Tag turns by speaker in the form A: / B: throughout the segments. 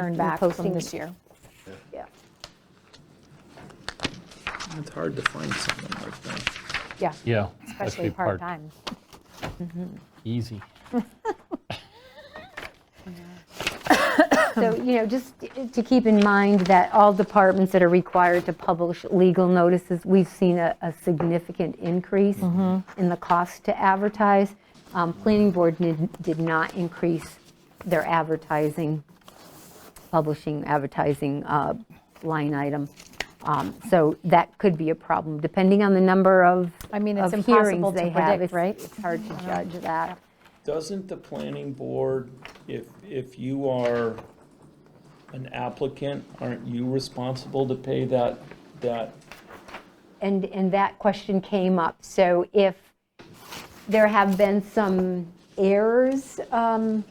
A: earn back from
B: posting.
A: this year.
B: Yeah,
C: It's hard to find something like that.
A: Yeah,
D: Yeah.
A: especially part-time.
D: Easy.
A: Um,
B: so, you know, just to keep in mind that all departments that are required to publish legal notices, we've seen a, a significant increase
A: Mm-hmm.
B: in the cost to advertise. Um, Planning board did, did not increase their advertising, publishing, advertising uh, line item. Um, So that could be a problem, depending on the number of,
A: I mean, it's
B: of
A: impossible
B: hearings
A: to
B: they have.
A: predict,
B: It's-
A: right? Mm-hmm.
B: It's hard to judge that.
C: Doesn't the planning board, if, if you are an applicant, aren't you responsible to pay that, that?
B: And, and that question came up. So if there have been some errors um,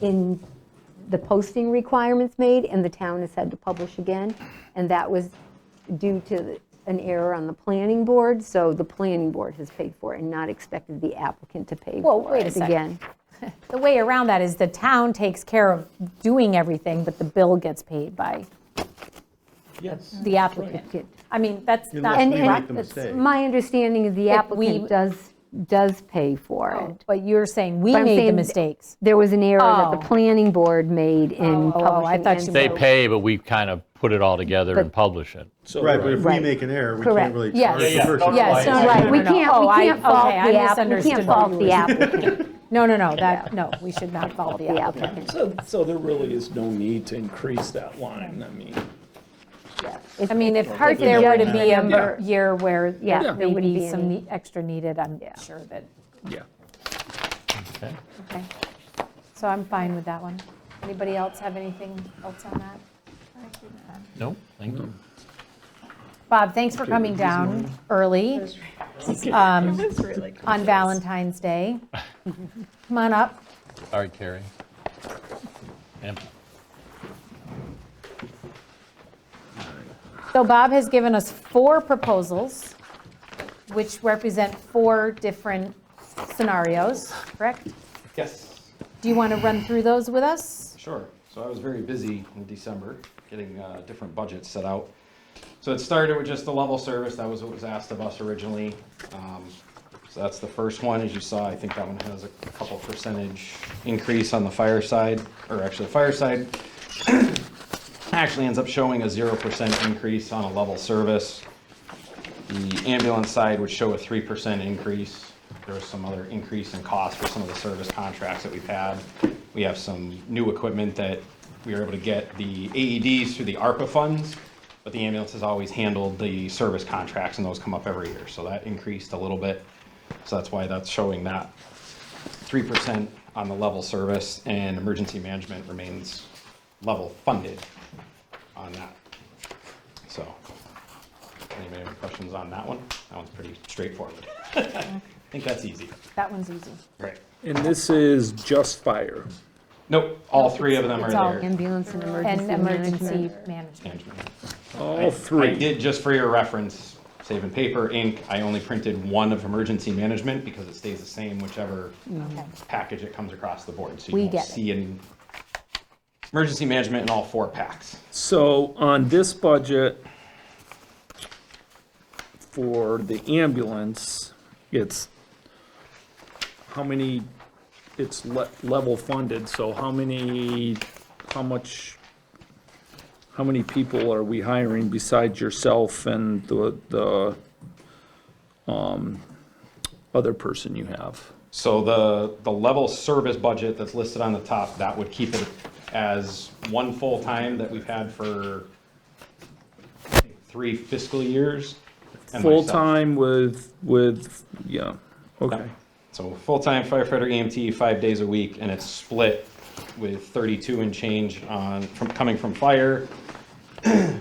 B: in the posting requirements made, and the town has had to publish again, and that was due to an error on the planning board, so the planning board has paid for it and not expected the applicant to pay
A: Well,
B: for
A: wait a
B: it
A: second.
B: again.
A: The way around that is the town takes care of doing everything, but the bill gets paid by
C: Yes.
A: the applicant. I mean, that's not.
E: Unless we
B: and-
E: make the
A: correct. That's-
E: mistake.
B: My understanding is the
A: If we- Oh.
B: applicant does, does pay for it.
A: But you're saying we
B: But I'm
A: made the
B: saying-
A: mistakes.
B: There was an error that
A: Oh.
B: the planning board made in
A: Oh, oh, oh, I
B: publishing.
A: thought
B: and-
A: you
D: They
A: So-
D: pay, but we kind of put it all together and publish it.
C: So-
E: Right, but if we
B: Right.
E: make an error, we
B: Correct.
E: can't really
A: Yes.
E: charge
A: Yeah,
E: the
C: yeah.
E: person.
C: Yeah,
A: Yes,
C: Yes,
A: no, right,
C: no,
B: We can't, we can't fault the applicant. We can't fault the applicant.
A: No, no, no, that, no, we should not fault the applicant.
C: So, so there really is no need to increase that line, I mean.
A: I mean, if
B: hard to
A: there were to
B: judge
A: be a
B: the
A: mer-
B: number.
A: year where
B: Yeah.
A: there
B: There
A: would
B: wouldn't
A: be
B: be
A: some
B: any.
A: ne- extra needed, I'm sure that,
C: Yeah.
D: Okay.
A: okay. So I'm fine with that one. Anybody else have anything else on that?
D: No, thank you.
A: Bob, thanks for coming down early Um,
F: It's really cool.
A: on Valentine's Day. Come on up.
D: All right, Carrie. Yep.
A: So Bob has given us four proposals, which represent four different scenarios, correct?
G: Yes,
A: Do you want to run through those with us?
G: sure. So I was very busy in December getting uh, different budgets set out. So it started with just the level service, that was what was asked of us originally. Um, So that's the first one, as you saw, I think that one has a couple percentage increase on the fire side, or actually the fire side actually ends up showing a 0% increase on a level service. The ambulance side would show a 3% increase. There was some other increase in cost for some of the service contracts that we've had. We have some new equipment that we were able to get the AEDs through the ARPA funds, but the ambulance has always handled the service contracts, and those come up every year. So that increased a little bit. So that's why that's showing that 3% on the level service, and emergency management remains level funded on that. So Anybody have any questions on that one? That one's pretty straightforward. I think that's easy.
A: That one's easy.
G: Right.
C: And this is just fire.
G: Nope, all three of them are
A: It's all
G: there.
B: Ambulance and emergency
A: And emergency
B: management.
A: management.
G: Management.
C: All
G: I did, just for your reference, save in paper, ink, I only printed one of emergency management because it stays the same whichever
A: Okay.
G: package it comes across the board. So
A: We
G: you won't
A: get it.
G: see in emergency management in all four packs.
C: So on this budget for the ambulance, it's how many, it's le- level funded, so how many, how much, how many people are we hiring besides yourself and the, the, um, other person you have?
G: So the, the level service budget that's listed on the top, that would keep it as one full-time that we've had for I think, three fiscal years. and myself.
C: Full-time with, with, yeah, okay.
G: So full-time firefighter EMT, five days a week, and it's split with 32 and change on, from, coming from fire, and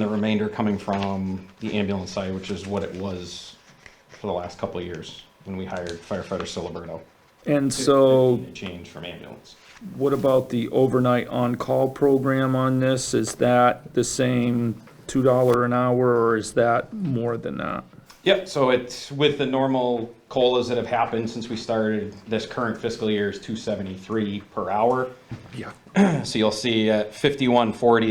G: the remainder coming from the ambulance side, which is what it was for the last couple of years when we hired firefighter Siliberto.
C: And so.
G: It changed from ambulance.
C: What about the overnight on-call program on this? Is that the same $2 an hour, or is that more than that?
G: Yep, so it's with the normal COLAs that have happened since we started, this current fiscal year is 273 per hour.
C: Yeah.
G: So you'll see at 5140